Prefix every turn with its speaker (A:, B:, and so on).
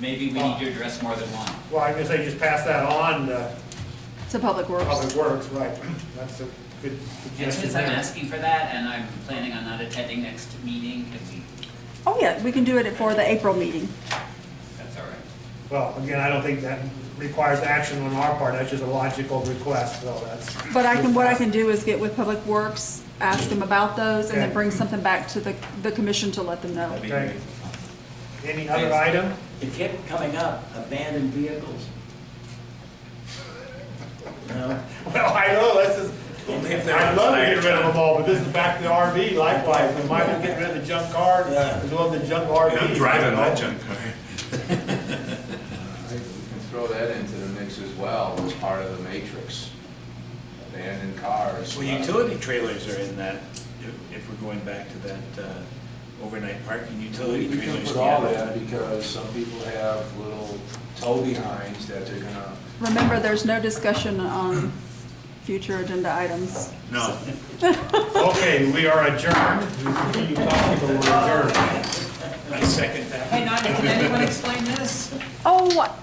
A: maybe we need to address more than one.
B: Well, I guess I just pass that on to
C: to Public Works.
B: Public Works, right, that's a good
A: And
B: suggestion
A: since I'm
B: there.
A: asking for that, and I'm planning on not attending next meeting, can we,
C: Oh, yeah, we can do it for the April meeting.
A: that's all right.
B: Well, again, I don't think that requires action on our part, that's just a logical request, so that's.
C: But I can, what I can do is get with Public Works, ask them about those, and then
B: Okay.
C: bring something back to the, the commission to let them know.
D: That'd be
B: Okay.
D: great.
B: Any other item?
D: It kept coming up, abandoned vehicles. No,
B: Well, I know, this is,
D: Well, if they're
B: I'd love to get rid of
D: outside.
B: them all, but this is back to the RV likewise, we might as well get rid of the junk car,
D: Yeah.
B: as well as the junk RV.
E: I'm driving that junk car.
F: We can throw that into the mix as well, as part of the matrix. Abandoned cars.
D: Well, utility trailers are in that, if- if we're going back to that uh, overnight parking, utility
F: We can
D: trailers.
F: put all that, because some people have little tow behinds that they're gonna,
C: Remember, there's no discussion on future agenda items.
D: No.
B: Okay, we are adjourned. We continue talking, but we're adjourned.
D: I second that.
A: Hey, Nigel, can anyone explain this?
C: Oh,